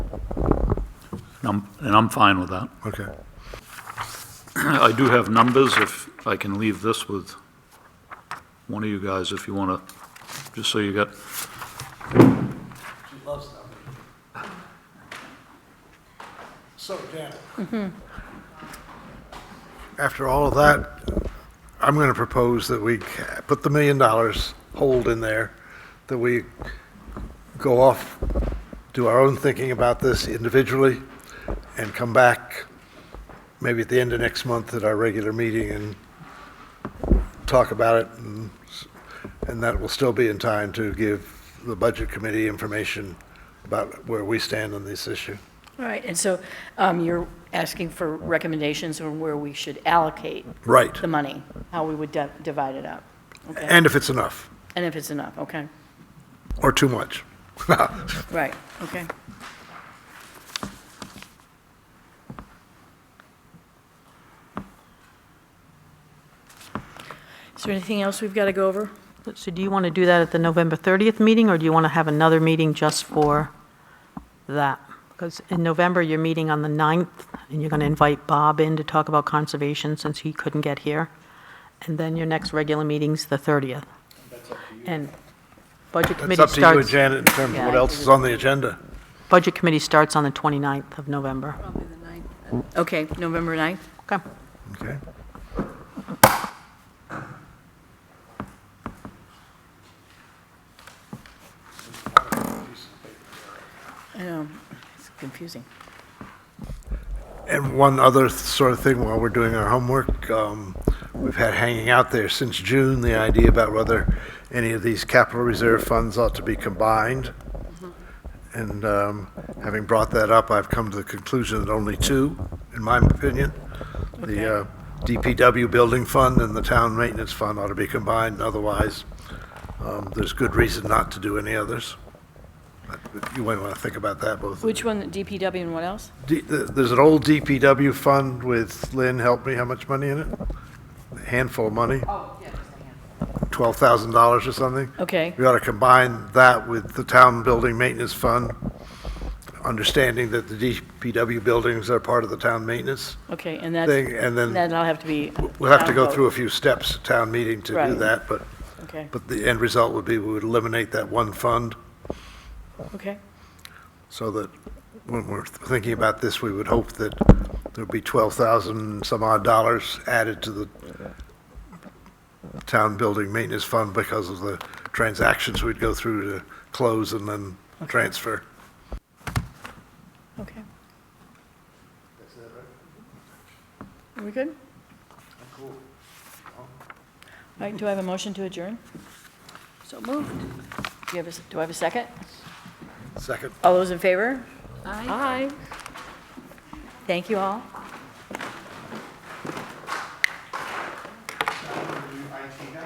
I'm- and I'm fine with that. Okay. I do have numbers, if I can leave this with one of you guys, if you want to, just so you got, She loves them. So, Janet, After all of that, I'm going to propose that we ca- put the million dollars hold in there, that we go off, do our own thinking about this individually, and come back maybe at the end of next month at our regular meeting and talk about it. And s- and that will still be in time to give the Budget Committee information about where we stand on this issue. All right, and so um, you're asking for recommendations on where we should allocate Right. the money, how we would di- divide it up? Okay, And if it's enough, and if it's enough, okay, or too much. right, okay. Is there anything else we've got to go over? So do you want to do that at the November 30th meeting, or do you want to have another meeting just for that? Because in November, you're meeting on the 9th, and you're going to invite Bob in to talk about conservation since he couldn't get here. And then your next regular meeting's the 30th. And Budget It's Committee up to you and starts, Janet in terms of Yeah. what else is on the agenda. Budget Committee starts on the 29th of November. Okay, November 9th? Okay. Okay. I know, it's confusing. And one other th- sort of thing while we're doing our homework, um, we've had hanging out there since June, the idea about whether any of these capital reserve funds ought to be combined. And um, having brought that up, I've come to the conclusion that only two, in my opinion, the uh, DPW Building Fund and the Town Maintenance Fund ought to be combined, otherwise, um, there's good reason not to do any others. But You might want to think about that, both of you. Which one, DPW and what else? D- th- There's an old DPW fund with, Lynn, help me, how much money in it? A handful of money? Oh, yeah, just a handful. $12,000 or something? Okay, We ought to combine that with the town building maintenance fund, understanding that the DPW buildings are part of the town maintenance okay, and that's, thing, and then that'll have to be. we'll have to go downvote. through a few steps at town meeting to do Right. that, but, Okay, but the end result would be we would eliminate that one fund okay. so that when we're thinking about this, we would hope that there'll be 12,000 some odd dollars added to the town building maintenance fund because of the transactions we'd go through to close and then transfer. Okay. Are we good? I'm cool. All right, do I have a motion to adjourn? So moved. Do you have a, s- do I have a second? Second. All those in favor? Aye. Aye. Thank you all.